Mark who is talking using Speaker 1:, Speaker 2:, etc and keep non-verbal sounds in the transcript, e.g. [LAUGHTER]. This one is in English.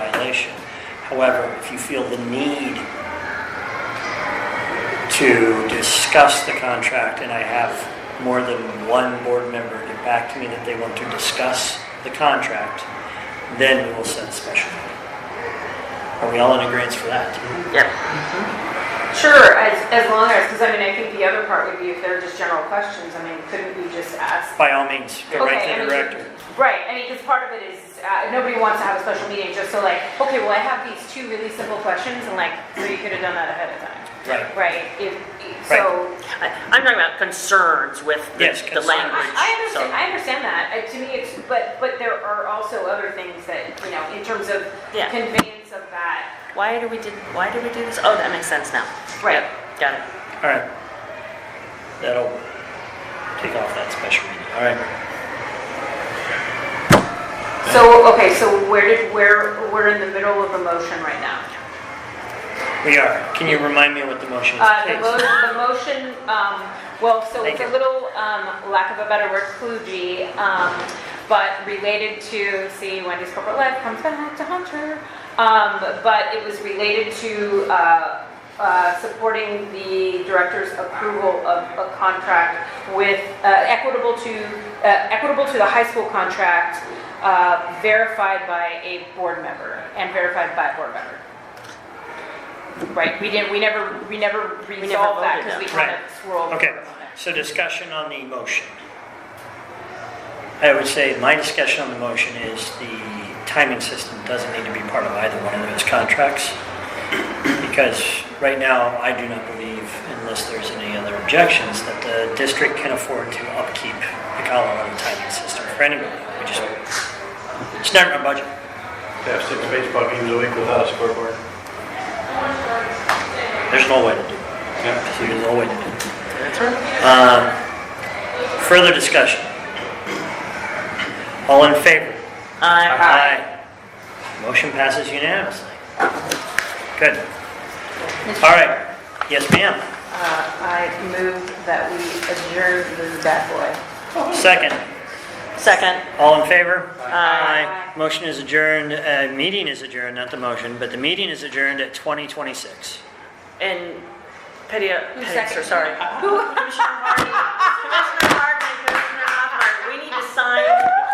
Speaker 1: However, if you feel the need to discuss the contract, and I have more than one board member get back to me that they want to discuss the contract, then we will set a special meeting. Are we all in agreement for that?
Speaker 2: Yep.
Speaker 3: Sure, as, as long as, because I mean, I think the other part would be if they're just general questions, I mean, couldn't we just ask?
Speaker 1: By all means, go right to
Speaker 3: Okay, I
Speaker 1: the
Speaker 3: mean,
Speaker 1: director.
Speaker 3: Right, I mean, because part of it is, uh, nobody wants to have a special meeting just so like, okay, well, I have these two really simple questions and like, so you could have done that ahead of time.
Speaker 1: Right.
Speaker 3: Right, if, so,
Speaker 2: I- I'm talking about concerns with the
Speaker 1: Yes,
Speaker 2: the
Speaker 1: concerns.
Speaker 3: I,
Speaker 2: language.
Speaker 3: I understand,
Speaker 2: so-
Speaker 3: I understand that, Uh, to me, it's, but, but there are also other things that, you know, in terms of
Speaker 2: Yeah.
Speaker 3: conveyance of that,
Speaker 2: Why do we did, why do we do this? Oh, that makes sense now.
Speaker 3: Right.
Speaker 2: Yep, Got it.
Speaker 1: All right. That'll take off that special meeting, all right?
Speaker 3: So, okay, so where did, where, we're in the middle of a motion right now.
Speaker 1: We are. Can you remind me what the motion is,
Speaker 3: Uh, the
Speaker 1: please?
Speaker 3: mo, the motion, um, well, so
Speaker 1: Thank
Speaker 3: it's a
Speaker 1: you.
Speaker 3: little, um, lack of a better word, kludgy, um, but related to, see, Wendy's corporate life comes back to Hunter. Um, but it was related to, uh, uh, supporting the director's approval of a contract with, uh, equitable to, uh, equitable to the high school contract, uh, verified by a board member and verified by a board member. Right, we didn't, we never, we never resolved that because
Speaker 2: voted
Speaker 3: we
Speaker 1: that.
Speaker 3: kind of swirled.
Speaker 1: Okay,
Speaker 3: around it.
Speaker 1: so discussion on the motion. I would say my discussion on the motion is the timing system doesn't need to be part of either one of those contracts. Because right now, I do not believe, unless there's any other objections, that the district can afford to upkeep the Colorado timing system for anybody. We just, it's not in our budget.
Speaker 4: Have six baseball games a week without a scoreboard.
Speaker 1: There's no way to do it.
Speaker 4: Yeah.
Speaker 1: There's no way to do it. Um, Further discussion? All in favor?
Speaker 2: Uh,
Speaker 1: Aye. Motion passes unanimously. Good. All right. Yes, ma'am.
Speaker 3: Uh, I move that we adjourn the bad boy.
Speaker 1: Second.
Speaker 2: Second.
Speaker 1: All in favor?
Speaker 3: Aye.
Speaker 1: Motion is adjourned, uh, meeting is adjourned, not the motion, but the meeting is adjourned at 2026.
Speaker 2: And Pedia,
Speaker 3: seconded?
Speaker 2: sorry.
Speaker 3: [LAUGHS] Commissioner Hardy. Commissioner Hardy.